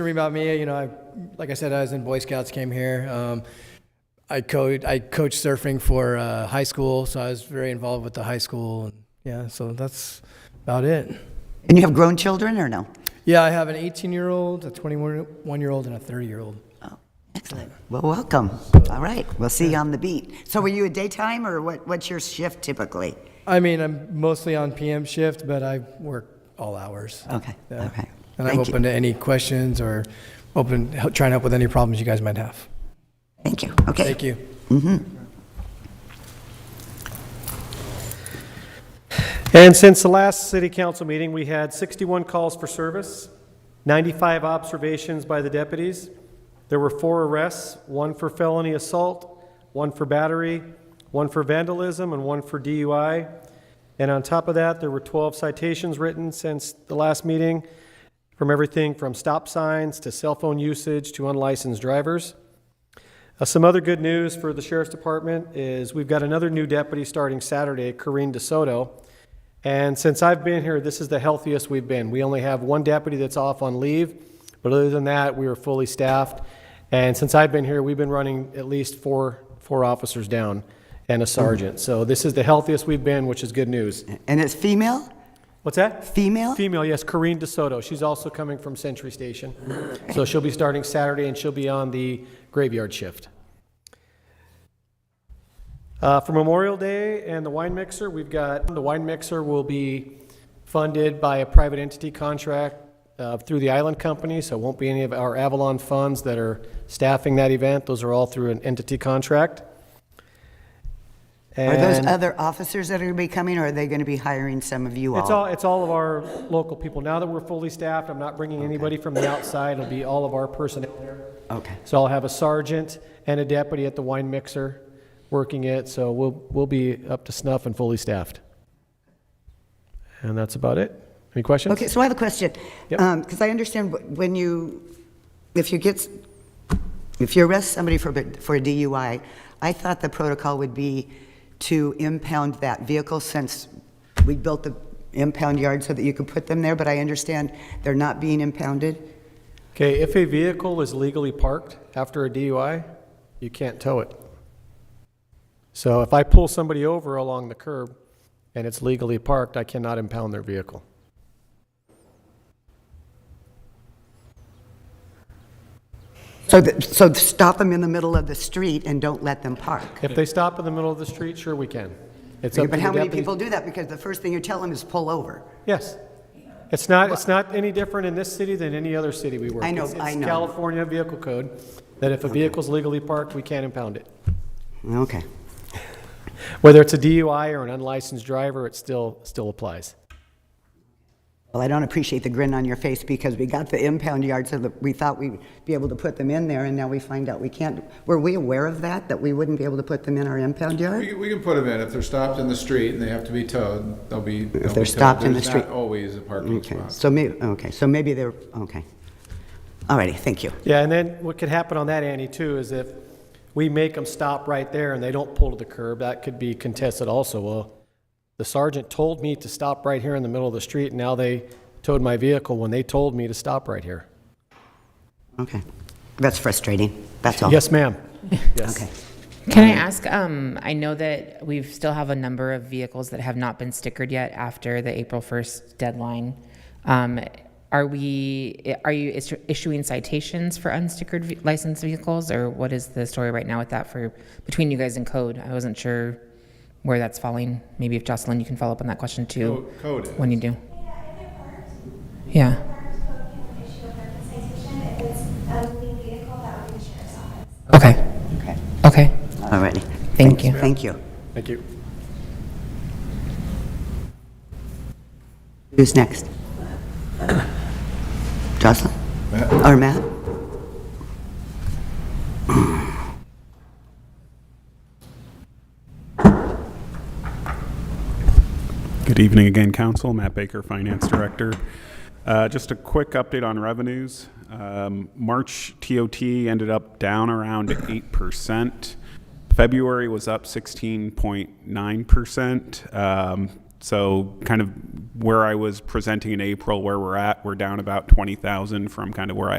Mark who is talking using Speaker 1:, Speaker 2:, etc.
Speaker 1: story about me, you know, I, like I said, I was in Boy Scouts, came here. Um, I coach, I coached surfing for uh, high school, so I was very involved with the high school. And yeah, so that's about it.
Speaker 2: And you have grown children or no?
Speaker 1: Yeah, I have an 18-year-old, a 21-year-old, and a 30-year-old.
Speaker 2: Oh, excellent. Well, welcome. All right, we'll see you on the beat. So were you a daytime or what, what's your shift typically?
Speaker 1: I mean, I'm mostly on PM shift, but I work all hours.
Speaker 2: Okay, all
Speaker 1: Yeah.
Speaker 2: right.
Speaker 1: And I'm
Speaker 2: Oh, Thank you.
Speaker 1: open to any questions or open, help- try and help with any problems you guys might have.
Speaker 2: Thank you. Okay.
Speaker 1: Thank you.
Speaker 3: And since the last city council meeting, we had 61 calls for service, 95 observations by the deputies. There were four arrests, one for felony assault, one for battery, one for vandalism, and one for DUI. And on top of that, there were 12 citations written since the last meeting, from everything from stop signs to cell phone usage to unlicensed drivers. Uh, Some other good news for the sheriff's department is we've got another new deputy starting Saturday, Corinne DeSoto. And since I've been here, this is the healthiest we've been. We only have one deputy that's off on leave, but other than that, we are fully staffed. And since I've been here, we've been running at least four, four officers down and a sergeant. So this is the healthiest we've been, which is good news.
Speaker 2: And it's female?
Speaker 3: What's that?
Speaker 2: Female?
Speaker 3: Female, yes, Corinne DeSoto. She's also coming from Century Station. So she'll be starting Saturday and she'll be on the graveyard shift. Uh, for Memorial Day and the wine mixer, we've got, the wine mixer will be funded by a private entity contract uh, through the Island Company, so it won't be any of our Avalon funds that are staffing that event. Those are all through an entity contract.
Speaker 2: Are those
Speaker 3: And-
Speaker 2: other officers that are going to be coming or are they going to be hiring some of you all?
Speaker 3: It's all, it's all of our local people. Now that we're fully staffed, I'm not bringing anybody from the outside. It'll be all of our personnel there.
Speaker 2: Okay.
Speaker 3: So I'll have a sergeant and a deputy at the wine mixer working it, so we'll, we'll be up to snuff and fully staffed. And that's about it. Any questions?
Speaker 2: Okay, so I have a question.
Speaker 3: Yep.
Speaker 2: Because I understand wh- when you, if you get, s- if you arrest somebody for, b- for a DUI, I thought the protocol would be to impound that vehicle since we built the impound yard so that you could put them there, but I understand they're not being impounded?
Speaker 3: Okay, if a vehicle is legally parked after a DUI, you can't tow it. So if I pull somebody over along the curb and it's legally parked, I cannot impound their vehicle.
Speaker 2: So, th- so stop them in the middle of the street and don't let them park.
Speaker 3: If they stop in the middle of the street, sure we can. It's up to
Speaker 2: But
Speaker 3: the
Speaker 2: how many
Speaker 3: deputy-
Speaker 2: people do that? Because the first thing you tell them is pull over.
Speaker 3: Yes. It's not, it's not any different in this city than any other city we work.
Speaker 2: I know,
Speaker 3: It's-
Speaker 2: I
Speaker 3: it's
Speaker 2: know.
Speaker 3: California Vehicle Code, that if a vehicle's legally parked, we can't impound it.
Speaker 2: Okay.
Speaker 3: Whether it's a DUI or an unlicensed driver, it still, still applies.
Speaker 2: Well, I don't appreciate the grin on your face because we got the impound yard so that we thought we'd be able to put them in there, and now we find out we can't. Were we aware of that, that we wouldn't be able to put them in our impound
Speaker 4: We
Speaker 2: yard?
Speaker 4: can, we can put them in, if they're stopped in the street and they have to be towed, they'll be. they'll be towed.
Speaker 2: stopped in the
Speaker 4: There's
Speaker 2: street.
Speaker 4: not always a parking
Speaker 2: Okay,
Speaker 4: spot.
Speaker 2: so maybe, okay, so maybe they're, okay. All righty, thank you.
Speaker 3: Yeah, and then what could happen on that, Annie, too, is if we make them stop right there and they don't pull to the curb, that could be contested also. Well, the sergeant told me to stop right here in the middle of the street, and now they towed my vehicle when they told me to stop right here.
Speaker 2: Okay. That's frustrating, that's all.
Speaker 3: Yes, ma'am.
Speaker 2: Okay.
Speaker 5: Can I ask, um, I know that we've still have a number of vehicles that have not been stickered yet after the April 1st deadline. Um, are we, are you issu- issuing citations for unstickered ve- licensed vehicles or what is the story right now with that for, between you guys and code? I wasn't sure where that's falling. Maybe if Jocelyn, you can follow up on that question too.
Speaker 4: Oh, Code is.
Speaker 5: When you do. Yeah. Okay.
Speaker 2: Okay.
Speaker 5: Okay.
Speaker 2: All righty.
Speaker 5: Thank you.
Speaker 2: Thank you.
Speaker 3: Thank you.
Speaker 2: Who's next? Jocelyn?
Speaker 4: Matt?
Speaker 2: Or Matt?
Speaker 6: Good evening again, Council. Matt Baker, Finance Director. Uh, Just a quick update on revenues. Um, March TOT ended up down around 8%. February was up 16.9%. Um, So kind of where I was presenting in April, where we're at, we're down about 20,000 from kind of where I